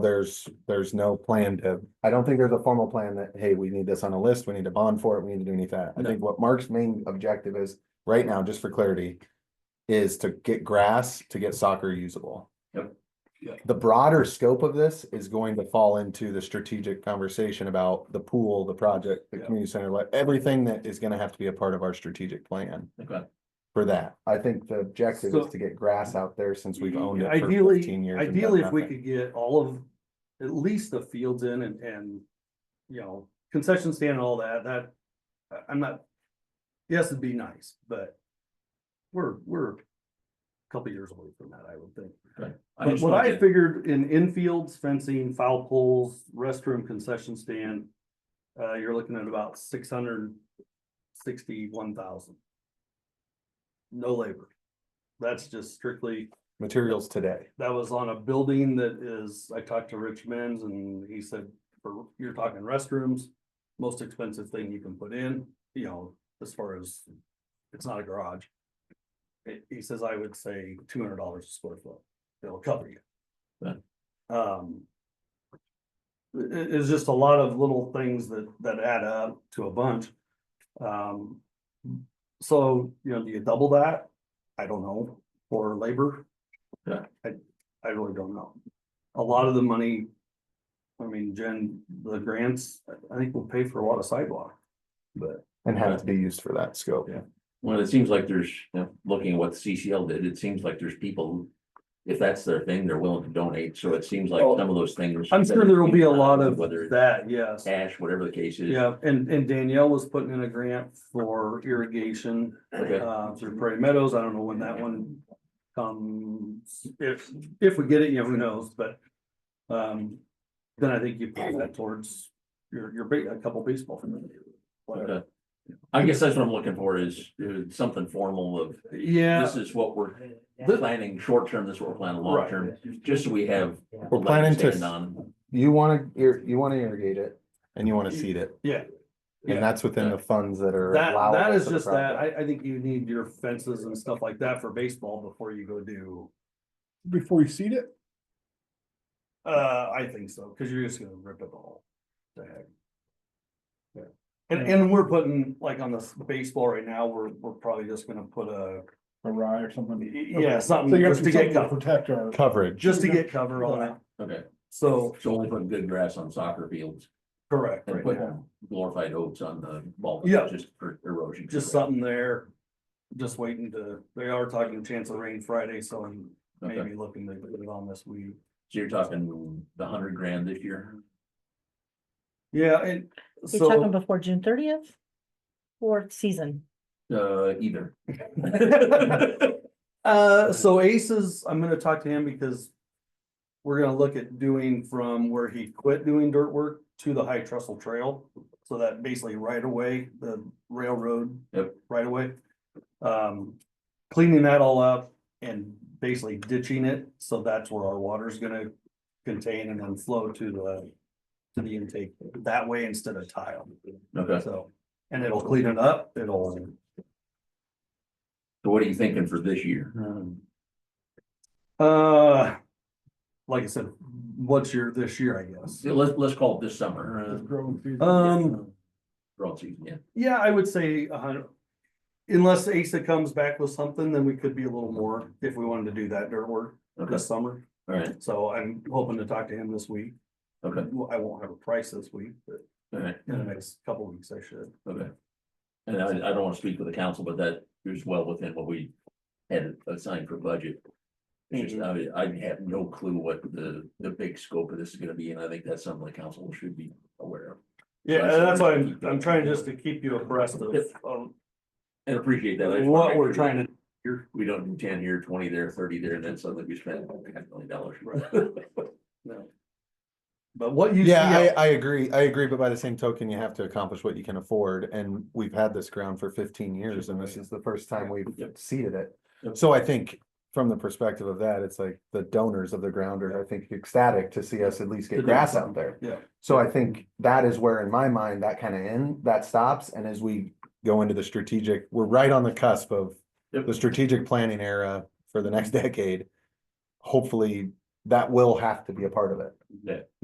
there's, there's no plan to, I don't think there's a formal plan that, hey, we need this on a list, we need to bond for it, we need to do any of that. I No. think what Mark's main objective is, right now, just for clarity, is to get grass, to get soccer usable. Yep. Yeah. The broader scope of this is going to fall into the strategic conversation about the pool, the project, the Yeah. community center, like, everything that is gonna have to be a part of our strategic plan uh, Okay. for that. I think the objective is So- to get grass out there since we've owned it for fifteen Ideally, years. and done ideally, if we nothing. could get all of, at least the fields in and, and, you know, concession stand and all that, that, I- I'm not, yes, it'd be nice, but we're, we're a couple years away from that, I would think. But just what wanna I get- figured in infields, fencing, foul poles, restroom, concession stand, uh, you're looking at about six hundred sixty-one thousand. No labor. That's just strictly Materials today. that was on a building that is, I talked to Rich Menz and he said, for, you're talking restrooms. Most expensive thing you can put in, you know, as far as, it's not a garage. It- he says, I would say two hundred dollars a square foot, it'll cover you. Right. Um. i- i- it's just a lot of little things that, that add up to a bunch. Um. So, you know, do you double that? I don't know, for labor, I really don't know. A lot of the money. I mean, Jen, the grants, I- I think will pay for a lot of sidewalk. But And have it to be used for that scope. Yeah. Well, it seems like there's, you know, looking at what CCL did, it seems like there's people who. If that's their thing, they're willing to donate, so it seems like Oh, some of those things. I'm sure there will be a lot of Whether it's that, yes. cash, whatever the case is. Yeah, and, and Danielle was putting in a grant for irrigation, Okay, uh, through Prairie Meadows. I don't know when that one comes. If, if we get it, you know, who knows, but, um, then I think you put that towards your, your, ba- a couple baseball. fields, whatever. okay. Uh, I guess that's what I'm looking for is, is something formal of, Yeah. this is what we're planning short term, this is what we're planning long Right. term, just so we have. We're planning to- stand on. You wanna, ir- you wanna irrigate it and you wanna seed it. Yeah. Yeah. And that's within the funds that are. That, allowable that is for the just that, project. I, I think you need your fences and stuff like that for baseball before you go do, before you seed it? uh, I think so, cause you're just gonna rip it all. to heck. Yeah, and, and we're putting, like on this baseball right now, we're, we're probably just gonna put a, A rye or something? yeah, So something you have just to to get something to cover, protect our. Coverage. just to get cover on it, Okay, so, so only put good grass on soccer fields correct, and right put now, glorified oats on the ball. Yeah. Just for erosion. just something there. Just waiting to, they are talking chance of rain Friday, so I'm Okay. maybe looking to put it on this week. So you're talking the hundred grand this year? Yeah, and You're so. talking before June thirtieth? Or season? Uh, either. Uh, so Aces, I'm gonna talk to him because we're gonna look at doing from where he quit doing dirt work to the high trestle trail. So that basically right away, the railroad. Yep. Right away. Um, cleaning that all up and basically ditching it. So that's where our water's gonna contain and then flow to the, to the intake that way instead of tile. Okay, So, and it'll clean it up. It'll so what are you thinking for this year? Hmm. Uh, like I said, what's your, this year, I guess? So Let's, let's call it this summer. Growing season. uh, Um, Broad season, yeah. yeah, I would say a hundred. Unless ASA comes back with something, then we could be a little more if we wanted to do that dirt work Okay, this summer. all right, So I'm hoping to talk to him this week. okay, Well, I won't have a price this week, but all right, in the next couple of weeks I should. okay. And I, I don't want to speak for the council, but that is well within what we had assigned for budget. It's just, Mm-hmm. I, I have no clue what the, the big scope of this is gonna be, and I think that's something the council should be aware of. Yeah, and that's why I'm, I'm trying just to keep you abreast of, of And appreciate that. I just wanna what make sure we're trying to Here, we don't do ten here, twenty there, thirty there, and then suddenly we spend half a million dollars. But what you. see Yeah, out- I, I agree, I agree, but by the same token, you have to accomplish what you can afford, and we've had this ground for fifteen years, and this is the first time we've Yep. seeded it. Yep. So I think, from the perspective of that, it's like, the donors of the ground are, I think, ecstatic to see us at least To get do grass something. out there. Yeah. So I think that is where, in my mind, that kind of end, that stops, and as we go into the strategic, we're right on the cusp of Yep. the strategic planning era for the next decade. Hopefully, that will have to be a part of it.